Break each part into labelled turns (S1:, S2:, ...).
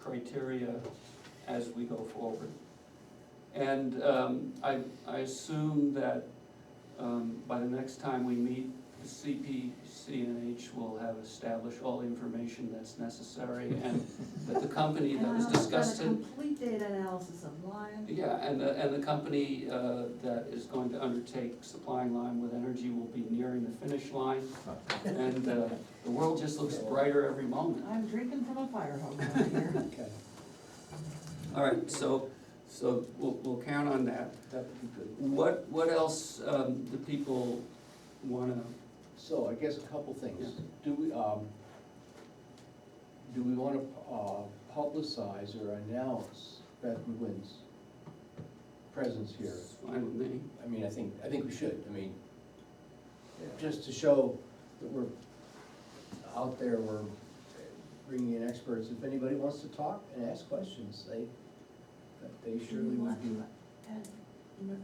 S1: criteria as we go forward. And um, I, I assume that um, by the next time we meet, the CPCNH will have established all the information that's necessary and that the company that was
S2: And I also
S1: discussed.
S2: done Um, a complete data analysis of Lion.
S1: Yeah, and the, and the company uh, that is going to undertake supplying Lime with energy will be nearing the finish line. And uh, the world just looks brighter every moment.
S2: I'm drinking from a fire hose out here.
S3: Okay,
S1: All right, so, so we'll, we'll count on that.
S3: that would be good.
S1: What, what else um, do people wanna,
S3: So I guess a couple things. Do we, um, do we wanna, uh, publicize or announce Beth McGuinn's presence here?
S1: it's fine with me.
S3: I mean, I think, I think we should, I mean, just to show that we're out there, we're bringing in experts. If anybody wants to talk and ask questions, they, they surely would be.
S2: And, you know,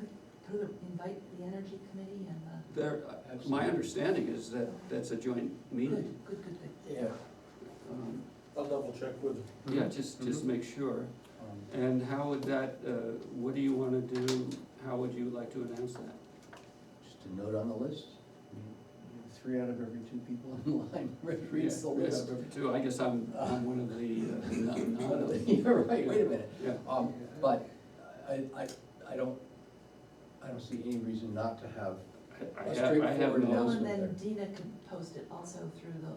S2: could, could invite the energy committee and the,
S1: There, uh, my understanding is that that's a joint
S2: good,
S1: meeting.
S2: good, good, good.
S3: Yeah.
S1: Um,
S4: I'll double check with.
S1: Yeah, just, just make sure.
S3: um,
S1: And how would that, uh, what do you wanna do, how would you like to announce that?
S3: Just a note on the list, three out of every two people in line reads the
S1: Yeah, yeah,
S3: list.
S1: Too, I guess I'm, I'm one of the, uh, no, no, no.
S3: You're right, wait a minute,
S1: yeah,
S3: um, but I, I, I don't, I don't see any reason not to have,
S1: I-
S3: A
S1: I have, I have
S3: straightforward
S2: Well,
S1: no,
S3: announcement.
S2: and then Dina could post it also through the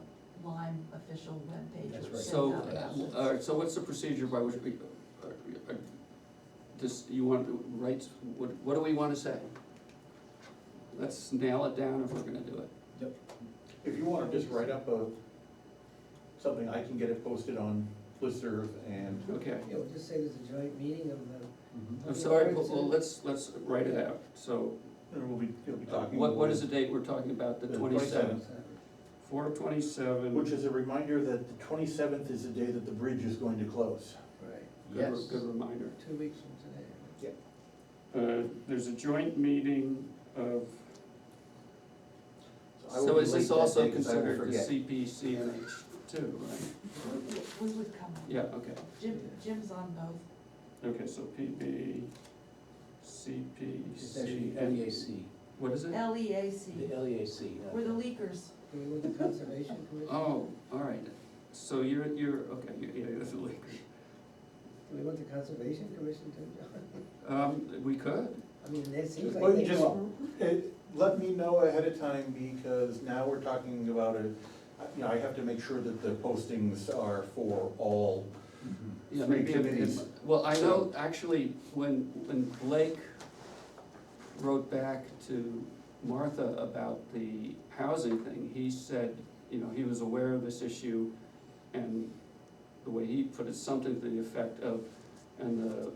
S2: Lime official webpage.
S3: That's
S2: which
S3: right.
S2: sends
S1: so,
S2: out
S1: uh,
S2: announcements.
S1: all right, so what's the procedure by which we, uh, uh, this, you want to write, what, what do we wanna say? Let's nail it down if we're gonna do it.
S4: If you wanna just write up a, something, I can get it posted on Listerv and.
S1: Okay,
S5: Yeah, we'll just say there's a joint meeting of the.
S3: Mm-hmm.
S1: I'm sorry, well, well, let's, let's write it out, so,
S4: And we'll be, you'll be
S1: uh,
S4: talking.
S1: what, what
S4: with-
S1: is the date we're talking about, the
S4: The
S1: twenty-seventh?
S4: 27th.
S1: Four twenty-seven.
S4: Which is a reminder that the twenty-seventh is the day that the bridge is going to close.
S5: Right,
S1: Good, re-
S3: yes,
S1: good reminder.
S5: two weeks from today.
S1: Uh, there's a joint meeting of,
S4: I will
S1: so
S4: be
S1: is this
S4: late that
S1: also
S4: day 'cause I will
S1: considered the
S4: forget.
S1: CPCNH too, right?
S2: We- We would come,
S1: Yeah, okay,
S2: Jim, Jim's on both,
S1: okay, so PB,
S3: it's actually E LEAC,
S1: what is it?
S3: the
S2: LEAC,
S1: E
S3: LEAC. not-
S2: E we're the leakers.
S5: Do we want the conservation commission?
S1: Oh, all right, so you're, you're, okay, you- yeah, you're the Lakers.
S5: Do we want the conservation commission to, John?
S1: Um, we could,
S5: I mean, that seems
S4: Well,
S5: like they
S4: just-
S5: go,
S4: It- Uh, Let me know ahead of time because now we're talking about a, you know, I have to make sure that the postings are for all.
S3: Mhm.
S1: yeah,
S4: Three
S1: maybe, it- it-
S4: committees.
S1: well, I know, actually, when, when Blake wrote back to Martha about the housing thing, he said, you know, he was aware of this issue, and the way he put it, something to the effect of, and the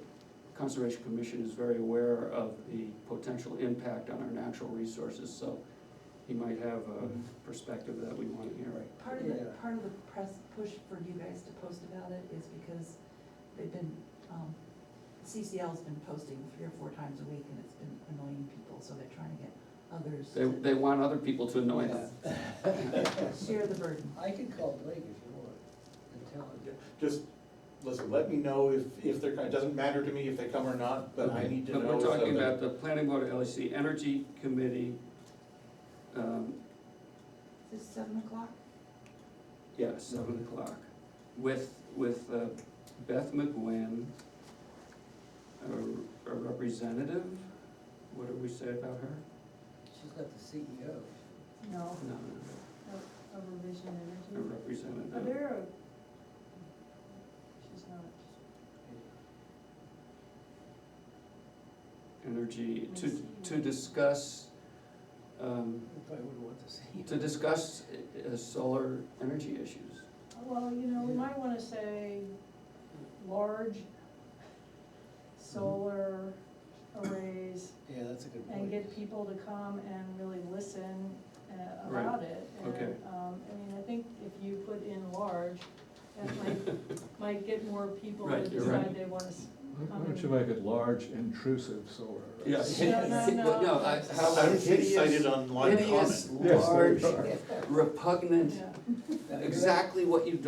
S1: Conservation Commission is very aware of the potential impact on our natural resources, so he might have a perspective that we want to hear.
S3: Right.
S2: Part of the,
S5: Yeah.
S2: part of the press push for you guys to post about it is because they've been, um, CCL's been posting three or four times a week and it's been annoying people, so they're trying to get others
S1: They,
S2: to
S1: they want other people to annoy them.
S2: share the burden.
S5: I could call Blake if you want and tell him.
S4: Just, listen, let me know if, if they're, it doesn't matter to me if they come or not, but I need to know.
S1: But we're
S4: so
S1: talking
S4: that-
S1: about the planning board, LEC, energy committee, um,
S2: Is this seven o'clock?
S1: yeah,
S4: Mm-hmm.
S1: seven o'clock, with, with uh, Beth McGuinn, a a representative, what did we say about her? Oh,
S5: She's not the E CEO.
S6: No,
S1: No, no,
S6: a revision
S1: no, a
S6: energy. Mm. Are
S1: representative,
S6: there a? She's not.
S1: energy,
S6: I
S1: to,
S6: see.
S1: to discuss, um,
S5: I probably wouldn't want the E CEO.
S1: to discuss uh, solar energy issues.
S6: Well, you know, we might wanna say large solar arrays
S5: Yeah, that's a good point.
S6: and get people to come and really listen uh,
S1: Right.
S6: about it. And,
S1: Okay.
S6: Um, I mean, I think if you put in large, that might, might get more people to
S1: Right, you're right.
S6: decide they wanna s-
S7: Why why don't you make it large intrusive solar? arrays?
S1: Yes.
S6: No, no, no.
S1: No, I, how
S4: I'm getting
S1: hideous-
S4: cited on live
S1: hideous,
S4: comment.
S7: Yes, there
S1: large,
S7: you are.
S1: repugnant,
S6: yeah.
S1: exactly what you